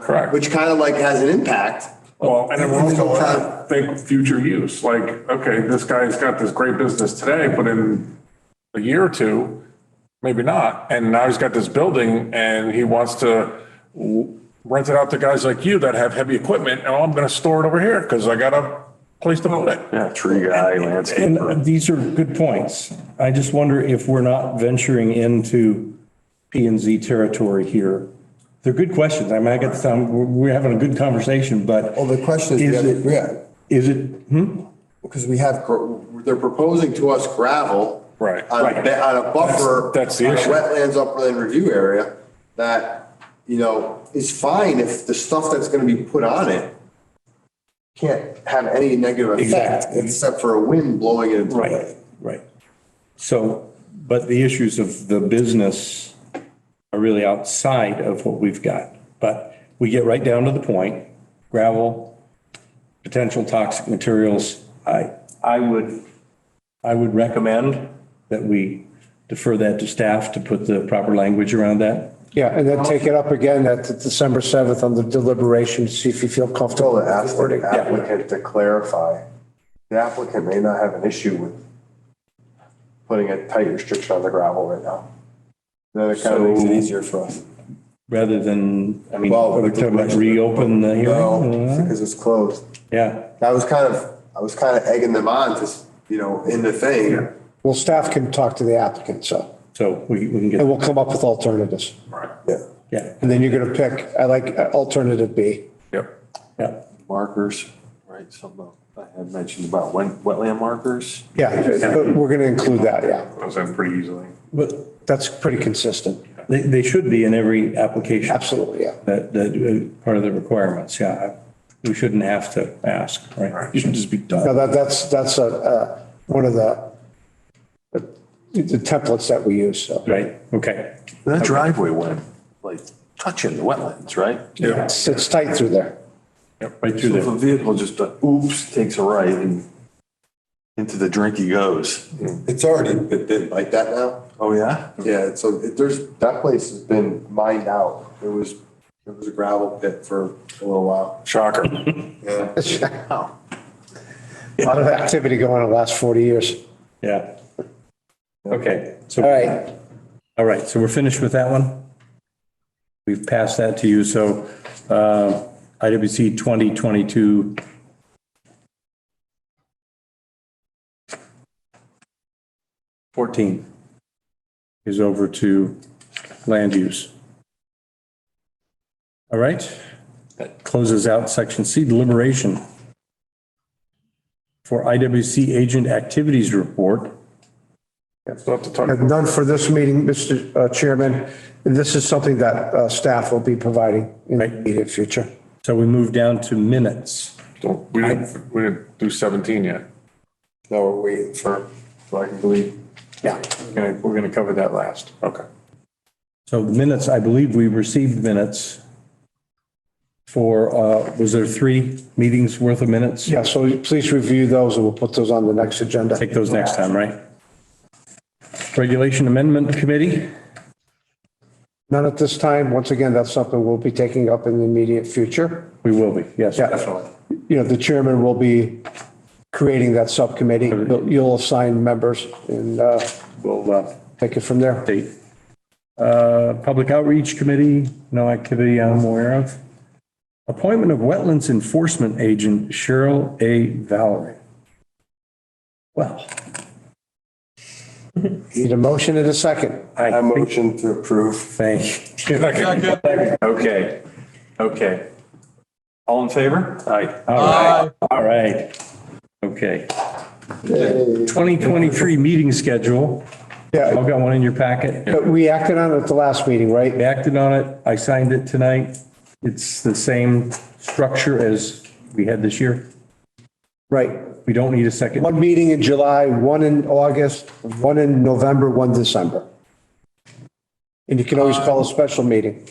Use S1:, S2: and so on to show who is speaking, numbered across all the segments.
S1: Correct.
S2: Which kind of like has an impact.
S3: Well, and it will also have to think future use, like, okay, this guy's got this great business today, but in a year or two, maybe not. And now he's got this building and he wants to w- rent it out to guys like you that have heavy equipment. And I'm going to store it over here because I got a place to put it.
S4: Yeah, tree guy, landscaper.
S5: And these are good points. I just wonder if we're not venturing into P and Z territory here. They're good questions. I mean, I get the time, we're we're having a good conversation, but.
S6: Well, the question is,
S5: Is it-
S6: yeah,
S5: Is it,
S6: because we have,
S2: Gr- They're proposing to us gravel.
S3: Right,
S2: On a,
S3: right.
S2: ba- on a buffer.
S3: That's- that's the
S2: on a
S3: issue.
S2: Wetlands upland review area that, you know, is fine if the stuff that's going to be put on it can't have any negative effect
S5: Exactly.
S2: except for a wind blowing it into it.
S5: right, right. So, but the issues of the business are really outside of what we've got. But we get right down to the point, gravel, potential toxic materials. I, I would, I would recommend that we defer that to staff to put the proper language around that.
S7: Yeah, and then take it up again at the December 7th on the deliberation, to see if you feel comfortable.
S4: Tell
S7: with
S4: the
S7: the wording.
S4: applicant- applicant to clarify. The applicant may not have an issue with putting a tight restriction on the gravel right now. Then it kind of makes it easier for us.
S5: Rather than, I mean,
S4: Well,
S5: we're talking about reopen the
S4: No,
S5: hearing?
S4: because it's closed.
S5: Yeah,
S2: I was kind of, I was kind of egging them on to, s- you know, in the thing.
S7: Well, staff can talk to the applicant, so,
S5: so we, we can
S7: and
S5: get,
S7: we'll come up with alternatives.
S4: Yeah.
S5: yeah,
S7: And then you're going to pick, I like uh, alternative B.
S3: Yep.
S5: yeah.
S4: Markers, right, something I had mentioned about wet- wetland markers.
S7: Yeah, but we're going to include that, yeah.
S3: Those in pretty easily.
S5: But
S7: That's pretty consistent.
S5: They, they should be in every application.
S7: Absolutely, yeah.
S5: That, that, uh, part of the requirements, yeah. We shouldn't have to ask, right? You should just be
S7: No,
S5: done.
S7: that, that's, that's a, uh, one of the, the templates that we use, so.
S5: Right, okay.
S4: That driveway went like touching the wetlands, right?
S3: Yeah.
S7: It's it's tight through there.
S5: Right through
S4: So if
S5: there.
S4: a vehicle just uh, oops, takes a right and into the drink he goes.
S2: It's already been been like that now.
S4: Oh, yeah?
S2: Yeah, so it- there's, that place has been mined out. It was, it was a gravel pit for a little while.
S3: Shocker.
S2: Yeah.
S7: Wow. A lot of activity going on the last 40 years.
S5: Yeah. Okay,
S7: All
S5: so,
S7: right.
S5: all right, so we're finished with that one? We've passed that to you, so, uh, IWC 2022. Fourteen is over to land use. All right, that closes out section C deliberation. For IWC agent activities report,
S3: Still have to talk.
S7: And None for this meeting, Mr. uh, Chairman. This is something that uh, staff will be providing in the immediate future.
S5: so we move down to minutes.
S3: Don't- We didn't, we didn't do 17 yet.
S4: No, we're waiting for, so I can believe. Yeah. We're going to cover that last.
S3: Okay.
S5: So the minutes, I believe we received minutes for, uh, was there three meetings worth of minutes?
S7: Yeah, so please review those and we'll put those on the next agenda.
S5: Take those next time, right? Regulation Amendment Committee,
S7: None at this time. Once again, that's something we'll be taking up in the immediate future.
S5: we will be, yes,
S7: Yeah.
S5: definitely.
S7: You know, the chairman will be creating that subcommittee. You'll you'll assign members and uh,
S5: We'll uh,
S7: take it from there.
S5: update. Uh, Public Outreach Committee, no activity I'm aware of. Appointment of Wetlands Enforcement Agent Cheryl A. Valerie. Well,
S7: Need a motion in a second.
S5: I
S4: I
S5: think,
S4: motion to approve.
S5: thank you.
S4: Okay, okay. All in favor? Aye.
S5: All right, all right, okay. 2023 meeting schedule,
S7: Yeah,
S5: I've got one in your packet.
S7: but we acted on it at the last meeting, right?
S5: I acted on it, I signed it tonight. It's the same structure as we had this year.
S7: Right.
S5: We don't need a second.
S7: One meeting in July, one in August, one in November, one December. And you can always call a special meeting.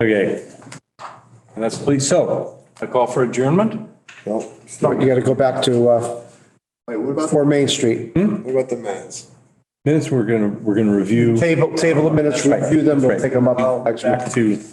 S5: Okay. And that's, please, so, a call for adjournment?
S7: You got to go back to uh,
S2: Wait, what about,
S7: 4 Main Street.
S2: what about the minutes?
S5: Minutes, we're gonna, we're gonna review
S7: Table, table of minutes, review them, we'll take them up next week.
S5: back to